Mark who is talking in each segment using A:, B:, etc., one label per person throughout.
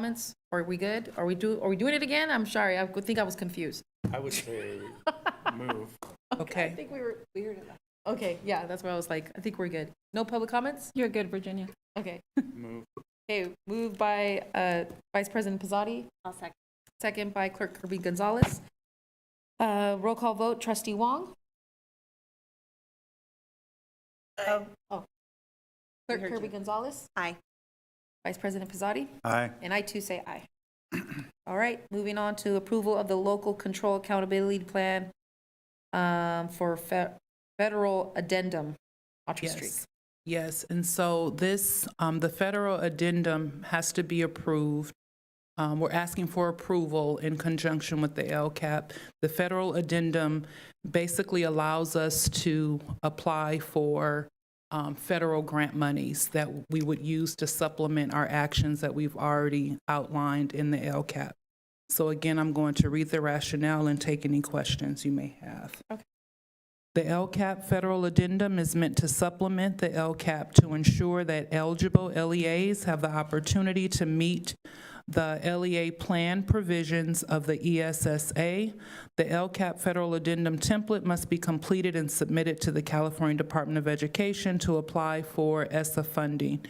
A: comments? Are we good? Are we do, are we doing it again? I'm sorry, I think I was confused.
B: I would say move.
A: I think we were, we heard it. Okay, yeah, that's what I was like, I think we're good. No public comments?
C: You're good, Virginia.
A: Okay.
B: Move.
A: Okay, moved by uh, Vice President Pizzotti. I'll second. Second by Clerk Kirby Gonzalez. Uh, Roll call vote, Trustee Wong? Oh. Clerk Kirby Gonzalez?
D: Aye.
A: Vice President Pizzotti?
B: Aye.
A: And I too say aye. All right, moving on to approval of the local control accountability plan um, for fe- federal addendum, Autry Street.
E: Yes. Yes, and so this, um, the federal addendum has to be approved. Um, We're asking for approval in conjunction with the LCAP. The federal addendum basically allows us to apply for um, federal grant monies that we would use to supplement our actions that we've already outlined in the LCAP. So again, I'm going to read the rationale and take any questions you may have. The LCAP federal addendum is meant to supplement the LCAP to ensure that eligible LEAs have the opportunity to meet the LEA plan provisions of the E ESSA. The LCAP federal addendum template must be completed and submitted to the California Department of Education to apply for E ESSA funding.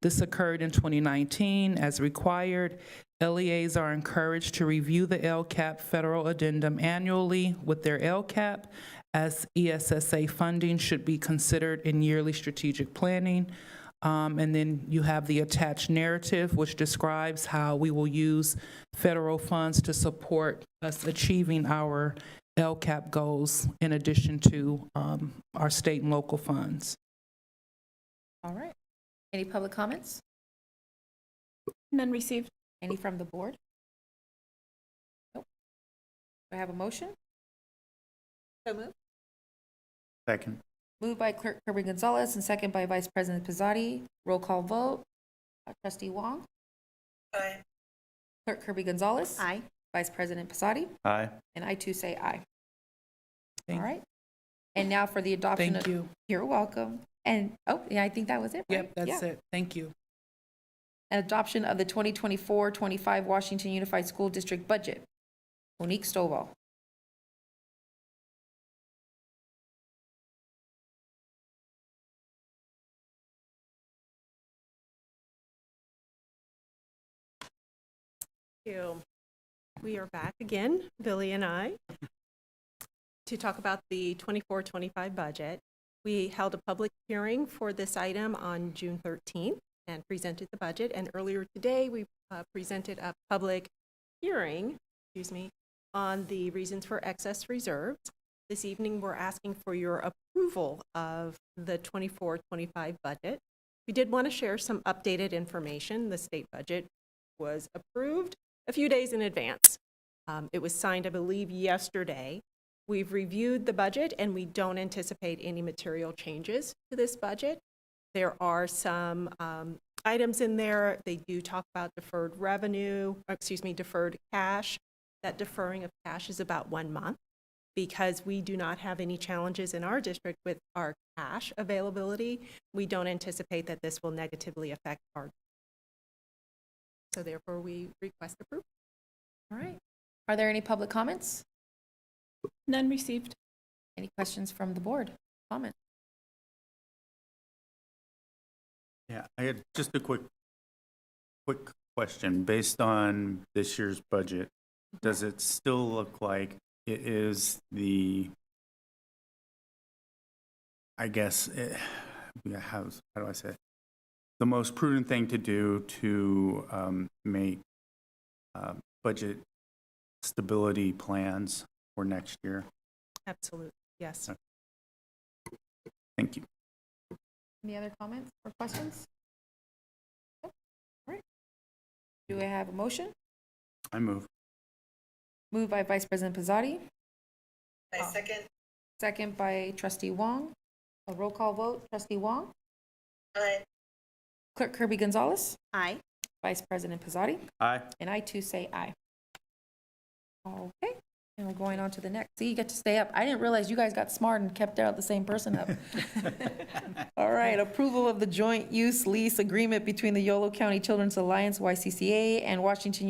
E: This occurred in 2019 as required. LEAs are encouraged to review the LCAP federal addendum annually with their LCAP as E ESSA funding should be considered in yearly strategic planning. Um, And then you have the attached narrative, which describes how we will use federal funds to support us achieving our LCAP goals in addition to um, our state and local funds.
A: All right. Any public comments?
C: None received.
A: Any from the board? Nope. Do I have a motion?
D: So moved.
B: Second.
A: Moved by Clerk Kirby Gonzalez and second by Vice President Pizzotti. Roll call vote, Uh, Trustee Wong?
D: Aye.
A: Clerk Kirby Gonzalez?
D: Aye.
A: Vice President Pizzotti?
B: Aye.
A: And I too say aye. All
E: Thank-
A: right. And now for the adoption.
E: Thank
A: of-
E: you.
A: You're welcome. And, oh, yeah, I think that was it, right?
E: Yep, that's it. Thank you.
A: Adoption of the 2024-25 Washington Unified School District Budget. Monique Stovall.
F: Thank you. We are back again, Billy and I, to talk about the 24-25 budget. We held a public hearing for this item on June 13th and presented the budget. And earlier today, we uh, presented a public hearing, excuse me, on the reasons for excess reserves. This evening, we're asking for your approval of the 24-25 budget. We did want to share some updated information. The state budget was approved a few days in advance. Um, It was signed, I believe, yesterday. We've reviewed the budget, and we don't anticipate any material changes to this budget. There are some um, items in there, they do talk about deferred revenue, or excuse me, deferred cash. That deferring of cash is about one month because we do not have any challenges in our district with our cash availability. We don't anticipate that this will negatively affect our, so therefore we request approval.
A: All right. Are there any public comments?
C: None received.
A: Any questions from the board? Comment?
B: Yeah, I had just a quick, quick question. Based on this year's budget, does it still look like it is the, I guess, eh, yeah, how, how do I say it? The most prudent thing to do to um, make uh, budget stability plans for next year?
F: Absolutely, yes.
B: Thank you.
A: Any other comments or questions? Nope. All right. Do I have a motion?
B: I move.
A: Moved by Vice President Pizzotti. I second. Second by Trustee Wong. A roll call vote, Trustee Wong?
D: Aye.
A: Clerk Kirby Gonzalez?
D: Aye.
A: Vice President Pizzotti?
B: Aye.
A: And I too say aye. Okay, And we're going on to the next. See, you get to stay up. I didn't realize you guys got smart and kept out the same person up. All right, approval of the joint use lease agreement between the Yolo County Children's Alliance, YCCA, and Washington